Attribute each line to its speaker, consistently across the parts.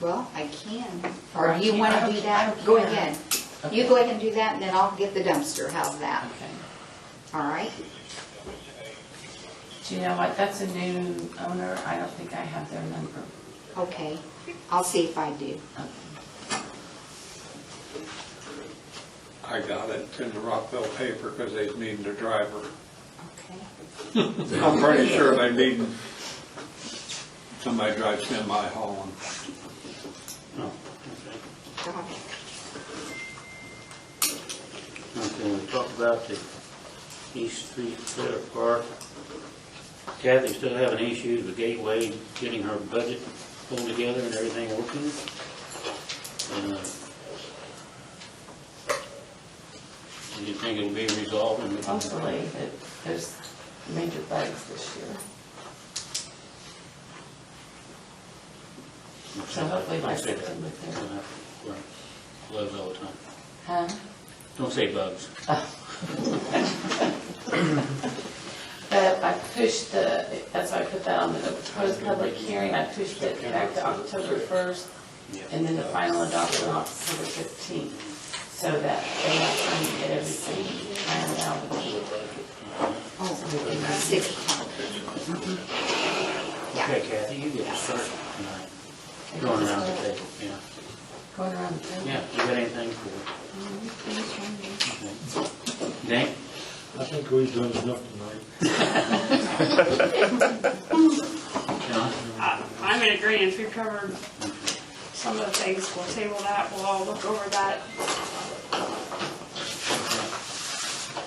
Speaker 1: Well, I can.
Speaker 2: Or
Speaker 1: Or
Speaker 2: I
Speaker 1: do you
Speaker 2: can't.
Speaker 1: want to
Speaker 2: I don't-
Speaker 1: do
Speaker 2: I
Speaker 1: that?
Speaker 2: don't
Speaker 1: Go
Speaker 2: care.
Speaker 1: ahead. You
Speaker 2: Okay.
Speaker 1: go ahead and do that, and then I'll get the dumpster. How's that?
Speaker 2: Okay.
Speaker 1: All right?
Speaker 2: Do you know what, that's a new owner, I don't think I have their number.
Speaker 1: Okay. I'll see if I do.
Speaker 2: Okay.
Speaker 3: I got it in the Rockville paper because they needed a driver.
Speaker 1: Okay.
Speaker 3: I'm pretty sure they need, somebody drives semi hauling.
Speaker 4: Oh,
Speaker 1: Got it.
Speaker 4: okay. Okay, we talked about the East Street Center Park. Kathy's still having issues with Gateway, getting her budget pulled together and everything working. And, uh, Do you think it'll be resolved? in the-
Speaker 2: Hopefully, that there's major bugs this year. So hopefully by
Speaker 4: Don't say that.
Speaker 2: September third.
Speaker 4: Right. Bugs all the time.
Speaker 2: Huh?
Speaker 4: Don't say bugs.
Speaker 2: But I pushed the, that's why I put that on the proposed public hearing, I pushed it back to October first, and then the final adoption on October fifteenth, so that they have time to get everything ironed out.
Speaker 1: Oh, six o'clock.
Speaker 4: Okay, Kathy, you get to start tonight. Going around the table, yeah.
Speaker 2: Going around the table.
Speaker 4: Yeah, you got anything for? Dink?
Speaker 5: I think we've done enough tonight.
Speaker 4: John?
Speaker 6: I- I'm in agreement, we've covered some of the things, we'll table that, we'll all look over that.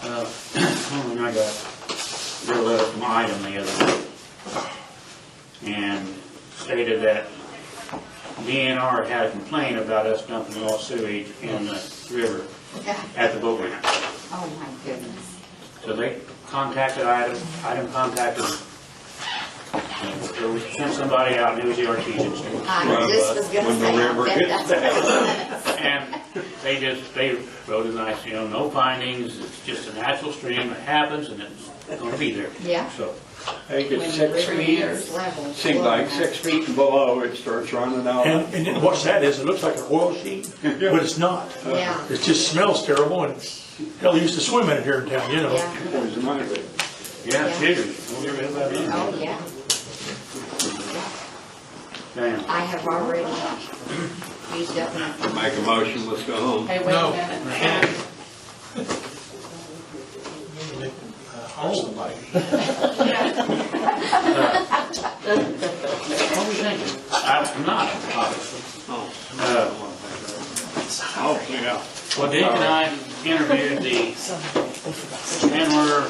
Speaker 4: Uh, well, and I got, real letter from Item the other day, and stated that DNR had a complaint about us dumping all sewage in the river at the boat ramp.
Speaker 1: Oh, my goodness.
Speaker 4: So they contacted Item, Item contacted, them. And so we sent somebody out, and it was the Artesian Street.
Speaker 1: I just Ah, was gonna
Speaker 3: When the
Speaker 1: say,
Speaker 3: river
Speaker 1: I bet
Speaker 3: gets
Speaker 1: that's.
Speaker 4: And they just, they wrote a nice, you know, no findings, it's just a natural stream, it happens, and it's gonna be there.
Speaker 1: Yeah.
Speaker 4: So,
Speaker 3: They
Speaker 1: When
Speaker 3: get
Speaker 1: the
Speaker 3: six
Speaker 1: river
Speaker 3: feet,
Speaker 1: gets level.
Speaker 3: seems like six feet and below, it starts running out.
Speaker 5: And, and then what that is, it looks like an oil sheet, but it's not.
Speaker 1: Yeah.
Speaker 5: It just smells terrible and hell, you used to swim in it here in town, you know.
Speaker 1: Yeah.
Speaker 3: Poison ivy.
Speaker 4: yeah,
Speaker 1: Yeah.
Speaker 4: serious, don't get rid of that either.
Speaker 1: Oh, yeah.
Speaker 4: Damn.
Speaker 1: I have already used up enough.
Speaker 3: Make a motion, let's go home.
Speaker 2: Hey, wait a minute.
Speaker 4: What was I thinking? I'm not, obviously. Uh,
Speaker 3: Oh, yeah.
Speaker 4: Well, Dick and I interviewed the Chandler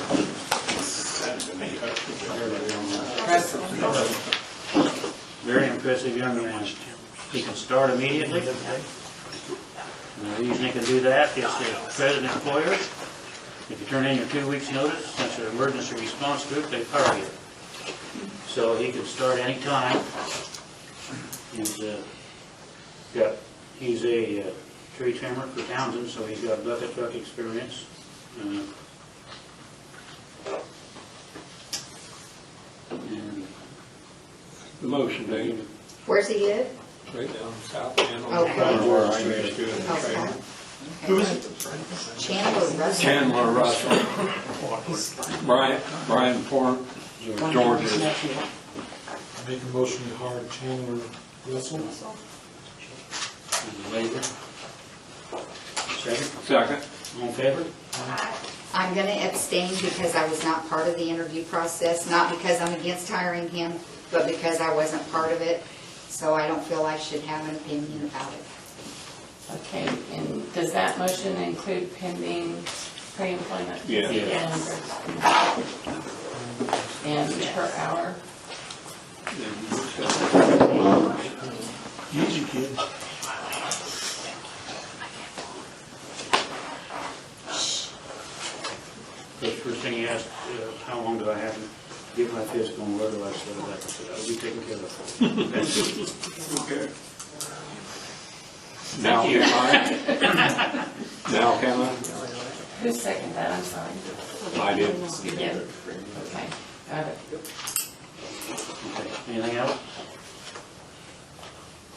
Speaker 4: Very impressive young man. He can start immediately. And The reason he can do that is the present employer, if you turn in your two weeks' notice, since you're an emergency response group, they fire you. So he can start any time. He's, uh, got, he's a uh, tree trimmer for Townsend, so he's got bucket truck experience. Uh, And
Speaker 3: The motion, Dave.
Speaker 1: Where's he live?
Speaker 3: Right down south end on
Speaker 1: Okay.
Speaker 3: the corner where I used to. in the
Speaker 1: Okay.
Speaker 3: trailer.
Speaker 5: Who is
Speaker 1: Chandler Russell.
Speaker 3: Chandler Russell, Brian, Brian Form, George's
Speaker 5: Make a motion to hire Chandler Russell.
Speaker 4: And the labor. Second,
Speaker 3: second.
Speaker 4: all in favor?
Speaker 1: I'm going to abstain because I was not part of the interview process, not because I'm against hiring him, but because I wasn't part of it, so I don't feel I should have an opinion about it.
Speaker 2: Okay, and does that motion include pending pre-employment?
Speaker 3: Yeah.
Speaker 2: Yeah. And per hour?
Speaker 5: Easy kid.
Speaker 4: The first thing he asked, uh, how long do I have to get my physical and where do I set it up? I said, I'll be taken care of. That's it.
Speaker 3: Okay. Now can I? Now can
Speaker 2: Who seconded that, I'm sorry?
Speaker 3: I? I did.
Speaker 2: You did? Okay, got it.
Speaker 4: Okay, Anything else?